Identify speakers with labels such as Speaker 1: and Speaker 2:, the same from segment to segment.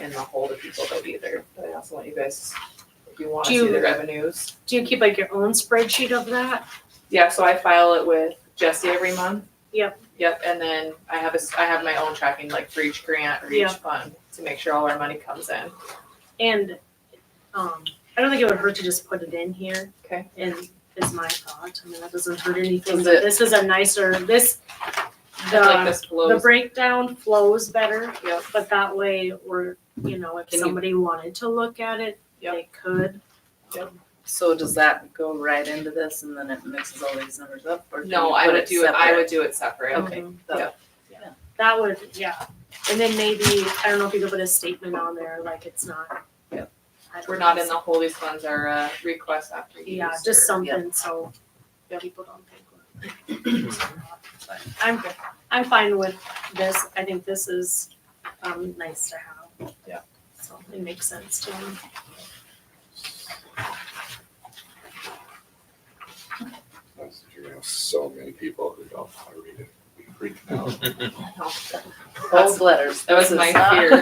Speaker 1: in the hole that people go either. But I also want you guys, if you want to
Speaker 2: Do you-
Speaker 1: see the revenues.
Speaker 2: Do you keep like your own spreadsheet of that?
Speaker 1: Yeah, so I file it with Jesse every month.
Speaker 2: Yep.
Speaker 1: Yep, and then I have a, s- I have my own tracking like for each grant or
Speaker 2: Yeah.
Speaker 1: each fund to make sure all our money comes in.
Speaker 2: And um, I don't think it would hurt to just put it in here.
Speaker 1: Okay.
Speaker 2: And is my thought. I mean, that doesn't hurt anything.
Speaker 1: Does it-
Speaker 2: This is a nicer, this,
Speaker 1: I feel like
Speaker 2: the,
Speaker 1: this
Speaker 2: the
Speaker 1: blows.
Speaker 2: breakdown flows better.
Speaker 1: Yep.
Speaker 2: But that way, we're, you know, if
Speaker 3: Can you-
Speaker 2: somebody wanted to look at it,
Speaker 1: Yep.
Speaker 2: they could.
Speaker 3: So does that go right into this and then it mixes all these numbers up or do
Speaker 1: No,
Speaker 3: you
Speaker 1: I
Speaker 3: put
Speaker 1: would do it, I
Speaker 3: separate?
Speaker 1: would do it separate.
Speaker 3: Okay.
Speaker 2: Mhm.
Speaker 3: so-
Speaker 1: Yep.
Speaker 2: That would, yeah. And then maybe, I don't know if you could put a statement on there, like it's not.
Speaker 1: Yep.
Speaker 2: I don't
Speaker 1: We're not
Speaker 2: know.
Speaker 1: in the hole, these funds are, uh, requests after use.
Speaker 2: Yeah,
Speaker 1: or-
Speaker 2: just something so people don't think. we're- I'm, I'm fine with this. I think this is, um, nice to have.
Speaker 1: Yeah.
Speaker 2: So it makes sense to me.
Speaker 4: You're gonna have so many people who don't want to read it, be freaking out.
Speaker 3: Those letters.
Speaker 1: That was
Speaker 3: this is
Speaker 1: my
Speaker 3: not-
Speaker 1: fear.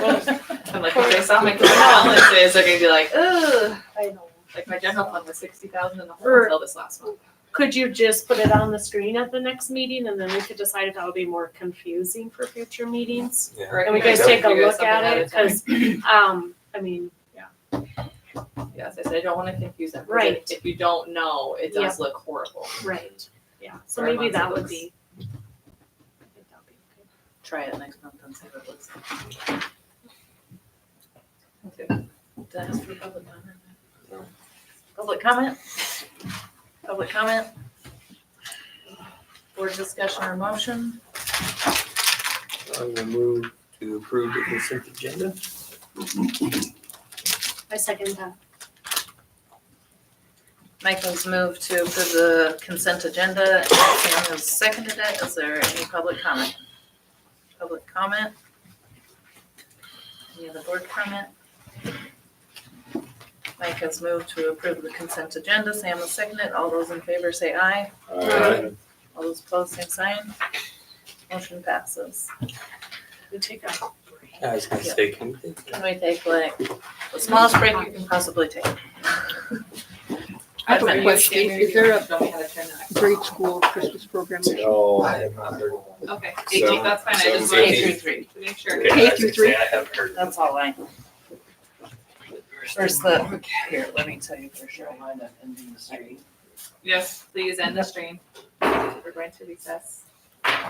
Speaker 1: I'm like, if they saw my cash balances, they're gonna be like, ugh,
Speaker 2: I know.
Speaker 1: like my general fund was sixty thousand in the hole
Speaker 2: Or-
Speaker 1: until this last month.
Speaker 2: Could you just put it on the screen at the next meeting and then we could decide if that would be more confusing for future meetings? Can we guys take a look at it? Cause, um, I mean,
Speaker 1: Yes, I said, I don't wanna confuse them. 'cause
Speaker 2: Right.
Speaker 1: If you don't know, it does look horrible.
Speaker 2: right, yeah, so
Speaker 1: Sorry,
Speaker 2: maybe
Speaker 1: lots of
Speaker 2: that would
Speaker 1: books.
Speaker 2: be. I think that would be good.
Speaker 3: Try it next month and see what it looks like. Did I ask for public comment?
Speaker 4: No.
Speaker 3: Public comment? Public comment? Board discussion or motion?
Speaker 5: I'm gonna move to approve the consent agenda.
Speaker 2: I second that.
Speaker 3: Michael's moved to approve the consent agenda and Sam has seconded it. Is there any public comment? Public comment? Any other board comment? Mike has moved to approve the consent agenda. Sam has seconded. it. All those in favor say aye.
Speaker 4: Uh,
Speaker 3: All those opposed, same sign. Motion passes.
Speaker 2: We take a break.
Speaker 5: I was gonna say, can we take
Speaker 3: Can we take like the smallest break you can possibly take?
Speaker 1: I
Speaker 3: have a
Speaker 6: question. Is there a-
Speaker 1: Don't know how to turn that.
Speaker 6: grade school Christmas program.
Speaker 4: Till
Speaker 5: I have not heard one.
Speaker 1: Okay,
Speaker 4: Seven-
Speaker 1: eighteen, that's fine, I just
Speaker 4: seven
Speaker 1: wanted
Speaker 3: K
Speaker 1: to
Speaker 3: through
Speaker 4: fifteen.
Speaker 3: three.
Speaker 1: to make sure.
Speaker 5: Okay, I
Speaker 6: K
Speaker 5: was
Speaker 6: through
Speaker 5: gonna
Speaker 6: three.
Speaker 5: say, I have heard. one.
Speaker 3: That's all I. Where's the, here, let me tell you for sure.
Speaker 1: Yes, please end the stream. We're going to recess.